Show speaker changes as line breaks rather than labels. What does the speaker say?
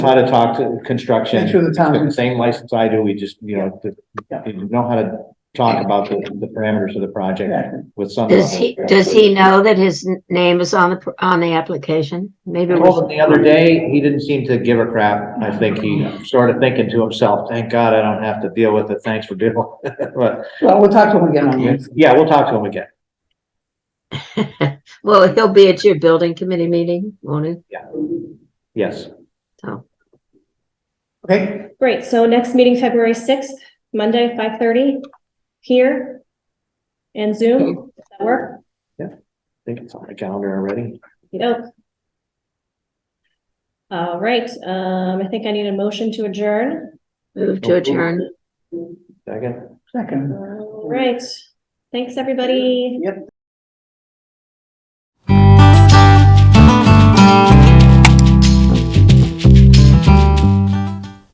how to talk to construction.
Make sure the town-
It's got the Same license I do, we just, you know, to-
Yeah.
you know how to talk about the, the parameters of the project
Exactly.
with some.
Does he,
level of-
does he know that his n- name is on the, pr- on the application? Maybe,
I
we
told him the other day, he didn't seem to give a crap. I think he started thinking to himself, thank God I don't have to deal with it. Thanks for dealing. with it." But,
Well, we'll talk to him again on this.
yeah, we'll talk to him again.
well, he'll be at your building committee meeting, won't he?
Yes.
Okay,
Great, so next meeting, February sixth, Monday, five thirty, here. And Zoom, does that work?
I think it's on the calendar already.
Okey-doke. All right, um, I think I need a motion to adjourn.
Move to adjourn.
Second.
second.
All right, thanks, everybody.
Yep,